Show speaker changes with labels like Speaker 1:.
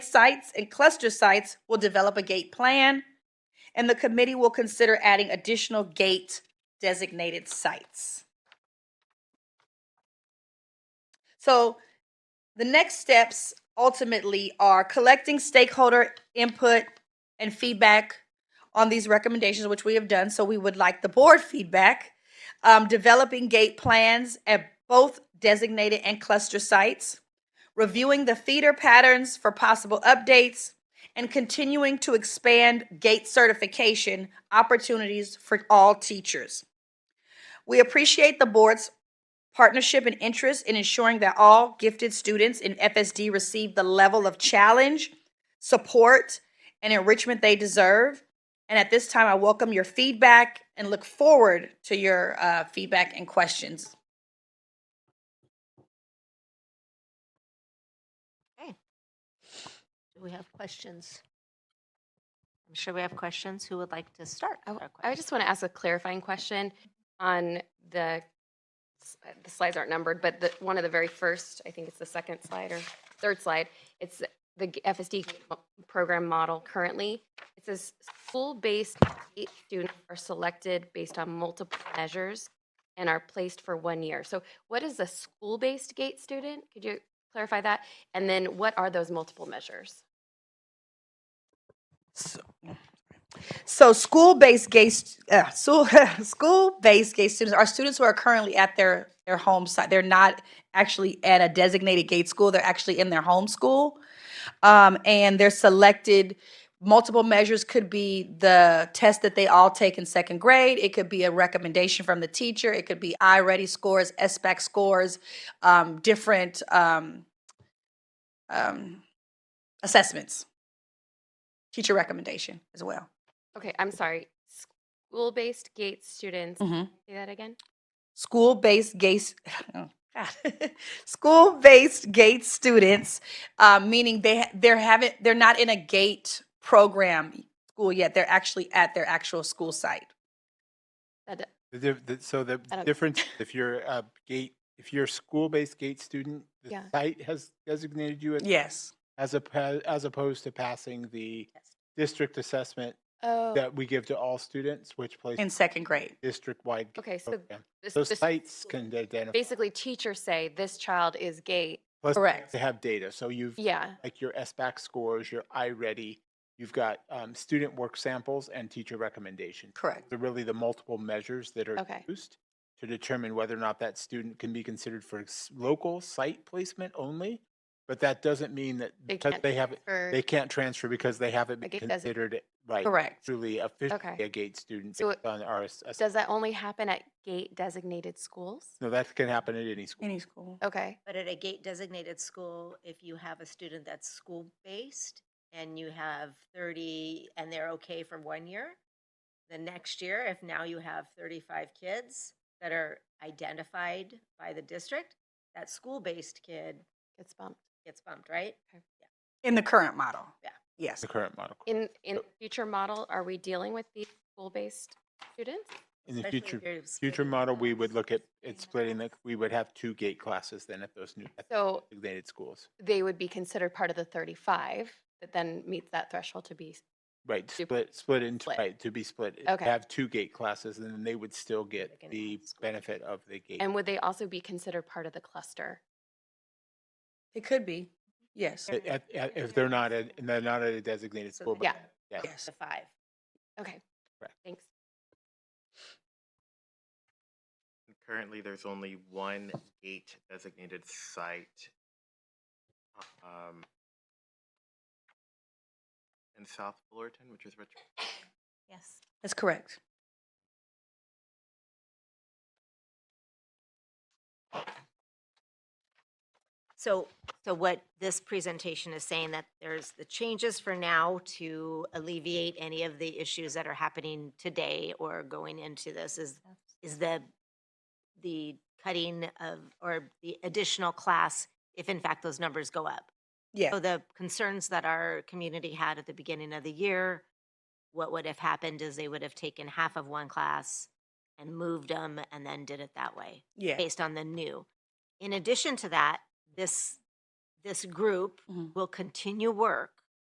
Speaker 1: sites and cluster sites will develop a gate plan, and the committee will consider adding additional gate designated sites. So the next steps ultimately are collecting stakeholder input and feedback on these recommendations, which we have done. So we would like the board feedback, um, developing gate plans at both designated and cluster sites, reviewing the feeder patterns for possible updates, and continuing to expand gate certification opportunities for all teachers. We appreciate the board's partnership and interest in ensuring that all gifted students in FSD receive the level of challenge, support, and enrichment they deserve. And at this time, I welcome your feedback and look forward to your uh, feedback and questions.
Speaker 2: Do we have questions? I'm sure we have questions. Who would like to start?
Speaker 3: I
Speaker 2: with our
Speaker 3: w- I just want to ask a clarifying question on the, s- uh, the slides aren't numbered, but the, one of the very first, I think it's the second slide or third slide, it's the g- FSD mo- program model currently. It says school-based eight students are selected based on multiple measures and are placed for one year. So what is a school-based GATE student? Could you clarify that? And then what are those multiple measures?
Speaker 1: So, so school-based gay, st- uh, so, school-based gay students are students who are currently at their their home site. They're not actually at a designated gate school. They're actually in their home school, um, and they're selected. Multiple measures could be the test that they all take in second grade. It could be a recommendation from the teacher. It could be iReady scores, SBAC scores, um, different um, um, assessments, teacher recommendation as well.
Speaker 3: Okay, I'm sorry. School-based GATE students,
Speaker 1: Mhm.
Speaker 3: say that again?
Speaker 1: school-based gay s- oh, God. school-based gate students, uh, meaning they ha- they're haven't they're not in a gate program school yet. They're actually at their actual school site.
Speaker 3: That d-
Speaker 4: The diff- the- So the
Speaker 3: I don't-
Speaker 4: difference, if you're a gate, if you're a school-based gate student, the
Speaker 3: Yeah.
Speaker 4: site has designated you as-
Speaker 1: Yes,
Speaker 4: as, oppo- as opposed to passing the district assessment
Speaker 3: Oh,
Speaker 4: that we give to all students, which
Speaker 1: in
Speaker 4: places
Speaker 1: second grade.
Speaker 4: district-wide. gate
Speaker 3: okay, so
Speaker 4: program.
Speaker 3: this,
Speaker 4: Those
Speaker 3: this-
Speaker 4: sites can identify,
Speaker 3: basically teachers say this child is gay.
Speaker 4: plus
Speaker 1: Correct.
Speaker 4: they have data. So you've,
Speaker 3: Yeah,
Speaker 4: like your SBAC scores, your iReady, you've got um, student work samples and teacher recommendation.
Speaker 1: Correct.
Speaker 4: They're really the multiple measures that are
Speaker 3: Okay.
Speaker 4: used to determine whether or not that student can be considered for s- local site placement only. But that doesn't mean that
Speaker 3: They
Speaker 4: because
Speaker 3: can't
Speaker 4: they have,
Speaker 3: or,
Speaker 4: they can't transfer because they haven't been
Speaker 3: Like it doesn't-
Speaker 4: considered, right,
Speaker 1: Correct.
Speaker 4: truly officially
Speaker 3: Okay.
Speaker 4: a GATE student
Speaker 3: So
Speaker 4: based on our, ass- ass-
Speaker 3: does that only happen at gate designated schools?
Speaker 4: no, that can happen at any school.
Speaker 1: Any school.
Speaker 3: Okay,
Speaker 5: But at a gate designated school, if you have a student that's school based and you have 30 and they're okay for one year, the next year, if now you have 35 kids that are identified by the district, that school based kid
Speaker 3: it's bumped.
Speaker 5: gets bumped, right?
Speaker 1: In the current model.
Speaker 5: Yeah.
Speaker 1: Yes.
Speaker 4: The current model.
Speaker 3: In, in the future model, are we dealing with the school-based students?
Speaker 4: In the
Speaker 5: Especially if
Speaker 4: future,
Speaker 5: you're
Speaker 4: future
Speaker 5: splitting
Speaker 4: model, we would
Speaker 5: class.
Speaker 4: look at, it splitting the, we would have two GATE classes then at those new at the
Speaker 3: So
Speaker 4: designated schools.
Speaker 3: they would be considered part of the 35 that then meets that threshold to be,
Speaker 4: Right,
Speaker 3: Sup-
Speaker 4: split, split into,
Speaker 3: split.
Speaker 4: right, to be split. it-
Speaker 3: Okay.
Speaker 4: Have two gate classes and then they would still get
Speaker 5: can have
Speaker 4: the
Speaker 5: school.
Speaker 4: benefit of the gate.
Speaker 3: and would they also be considered part of the cluster?
Speaker 1: It could be. Yes.
Speaker 4: At- at- at- If they're not, at- and they're not at a designated
Speaker 5: So
Speaker 4: school.
Speaker 5: they
Speaker 4: but-
Speaker 3: Yeah.
Speaker 5: have
Speaker 4: Yeah.
Speaker 1: Yes.
Speaker 5: The five.
Speaker 3: Okay,
Speaker 4: Correct.
Speaker 3: thanks.
Speaker 6: Currently, there's only one gate designated site. um, In South Fullerton, which is Richmond.
Speaker 5: Yes.
Speaker 1: That's correct.
Speaker 5: So, so what this presentation is saying that there's the changes for now to alleviate any of the issues that are happening today or going into this is, is the, the cutting of, or the additional class, if in fact those numbers go up.
Speaker 1: Yeah.
Speaker 5: So the concerns that our community had at the beginning of the year, what would have happened is they would have taken half of one class and moved them and then did it that way
Speaker 1: Yeah.
Speaker 5: based on the new. In addition to that, this, this group
Speaker 1: Mhm.
Speaker 5: will continue work